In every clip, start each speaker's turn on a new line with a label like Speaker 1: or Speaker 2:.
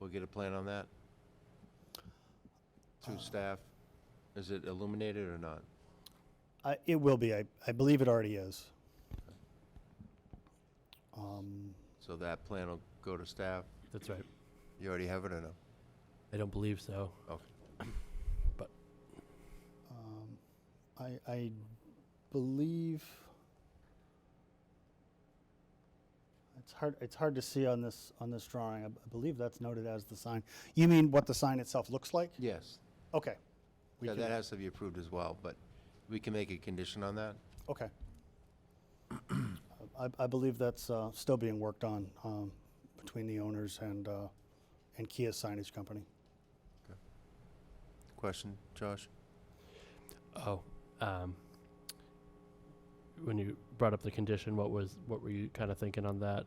Speaker 1: We'll get a plan on that? Through staff? Is it illuminated or not?
Speaker 2: I, it will be. I, I believe it already is. Um,
Speaker 1: So that plan will go to staff?
Speaker 3: That's right.
Speaker 1: You already have it or no?
Speaker 3: I don't believe so.
Speaker 1: Okay.
Speaker 2: um, I, I believe it's hard. It's hard to see on this on this drawing. I, b- I believe that's noted as the sign. You mean what the sign itself looks like?
Speaker 1: Yes.
Speaker 2: Okay. We
Speaker 1: Yeah,
Speaker 2: can-
Speaker 1: that has to be approved as well, but we can make a condition on that?
Speaker 2: Okay. I, I believe that's uh, still being worked on um, between the owners and uh, and Kia Signage Company.
Speaker 1: Question, Josh?
Speaker 3: Oh, um, when you brought up the condition, what was what were you kind of thinking on that?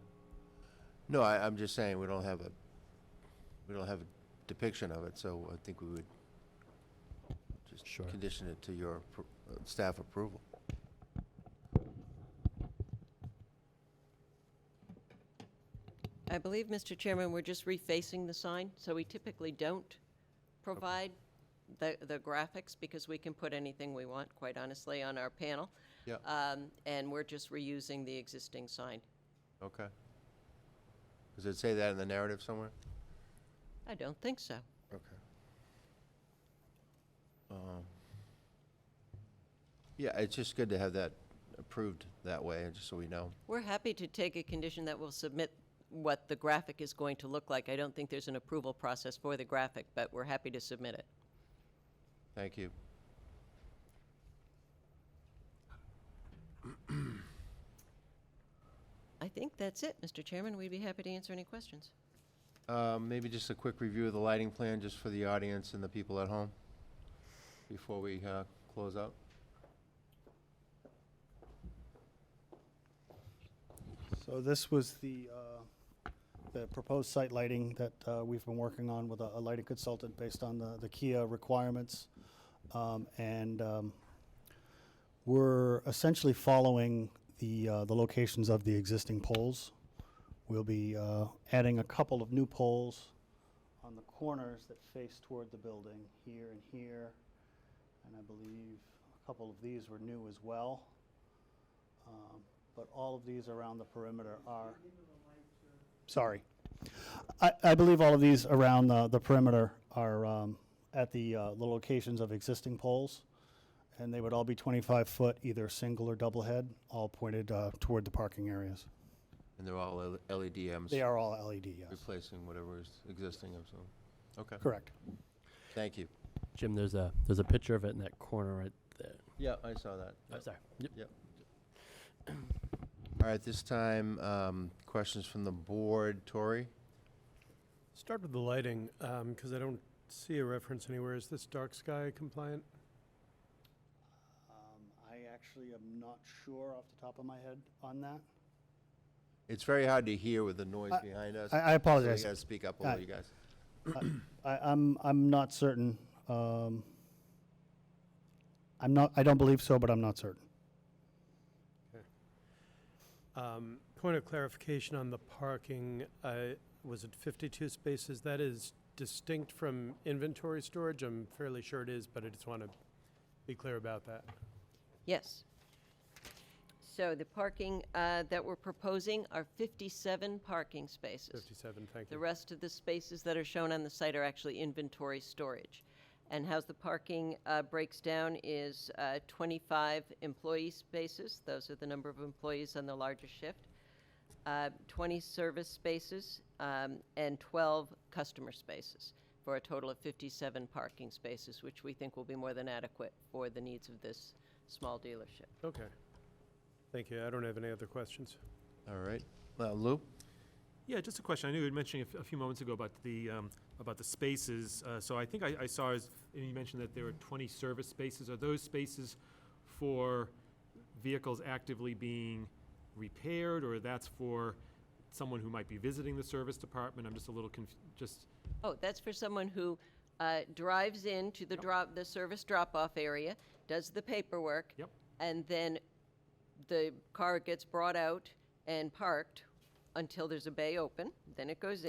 Speaker 1: No, I, I'm just saying, we don't have a, we don't have a depiction of it, so I think we would just
Speaker 3: Sure.
Speaker 1: condition it to your appro- uh, staff approval.
Speaker 4: I believe, Mr. Chairman, we're just refacing the sign, so we typically don't provide the, the graphics because we can put anything we want, quite honestly, on our panel.
Speaker 1: Yeah.
Speaker 4: Um, And we're just reusing the existing sign.
Speaker 1: Okay. Does it say that in the narrative somewhere?
Speaker 4: I don't think so.
Speaker 1: Okay. Um, Yeah, it's just good to have that approved that way, and just so we know.
Speaker 4: We're happy to take a condition that will submit what the graphic is going to look like. I don't think there's an approval process for the graphic, but we're happy to submit it.
Speaker 1: Thank you.
Speaker 4: I think that's it, Mr. Chairman. We'd be happy to answer any questions.
Speaker 1: Um, Maybe just a quick review of the lighting plan, just for the audience and the people at home, before we uh, close out.
Speaker 2: So this was the, uh, the proposed site lighting that uh, we've been working on with a a lighting consultant based on the, the Kia requirements. Um, And um, we're essentially following the, uh, the locations of the existing poles. We'll be uh, adding a couple of new poles on the corners that face toward the building, here and here. And I believe a couple of these were new as well. Um, but all of these around the perimeter are. Sorry. I, I believe all of these around the, the perimeter are um, at the, uh, the locations of existing poles. And they would all be 25 foot, either single or double head, all pointed uh, toward the parking areas.
Speaker 1: And they're all L- E LEDMs.
Speaker 2: They are all LED, yes.
Speaker 1: Replacing whatever is existing, I'm assuming. Okay,
Speaker 2: Correct.
Speaker 1: thank you.
Speaker 3: Jim, there's a there's a picture of it in that corner right there.
Speaker 1: Yeah, I saw that.
Speaker 3: Oh, sorry. Yep.
Speaker 1: All right, this time, um, questions from the board. Tori?
Speaker 5: Start with the lighting, because I don't see a reference anywhere. Is this dark sky compliant?
Speaker 2: Um, I actually am not sure off the top of my head on that.
Speaker 1: It's very hard to hear with the noise
Speaker 2: I-
Speaker 1: behind us.
Speaker 2: I, I
Speaker 1: so
Speaker 2: apologize.
Speaker 1: You gotta speak up a
Speaker 2: I-
Speaker 1: little, you guys.
Speaker 2: I, I'm, I'm not certain. Um, I'm not, I don't believe so, but I'm not certain.
Speaker 5: Um, Point of clarification on the parking, I- was it 52 spaces? That is distinct from inventory storage? I'm fairly sure it is, but I just want to be clear about that.
Speaker 4: Yes. So the parking uh, that we're proposing are 57 parking spaces.
Speaker 5: 57, thank
Speaker 4: The
Speaker 5: you.
Speaker 4: rest of the spaces that are shown on the site are actually inventory storage. And how's the parking uh, breaks down is uh, 25 employee spaces, those are the number of employees on the largest shift, uh, 20 service spaces, um, and 12 customer spaces, for a total of 57 parking spaces, which we think will be more than adequate for the needs of this small dealership.
Speaker 5: Okay. Thank you. I don't have any other questions.
Speaker 1: All right, Uh, Lou?
Speaker 6: Yeah, just a question. I knew you were mentioning a f- a few moments ago about the, um, about the spaces. uh, So I think I I saw, is- you mentioned that there are 20 service spaces. Are those spaces for vehicles actively being repaired, or that's for someone who might be visiting the service department? I'm just a little conf, just,
Speaker 4: Oh, that's for someone who uh, drives in to the drop, the service drop-off area, does the paperwork.
Speaker 6: Yep.
Speaker 4: And then the car gets brought out and parked until there's a bay open, then it goes in.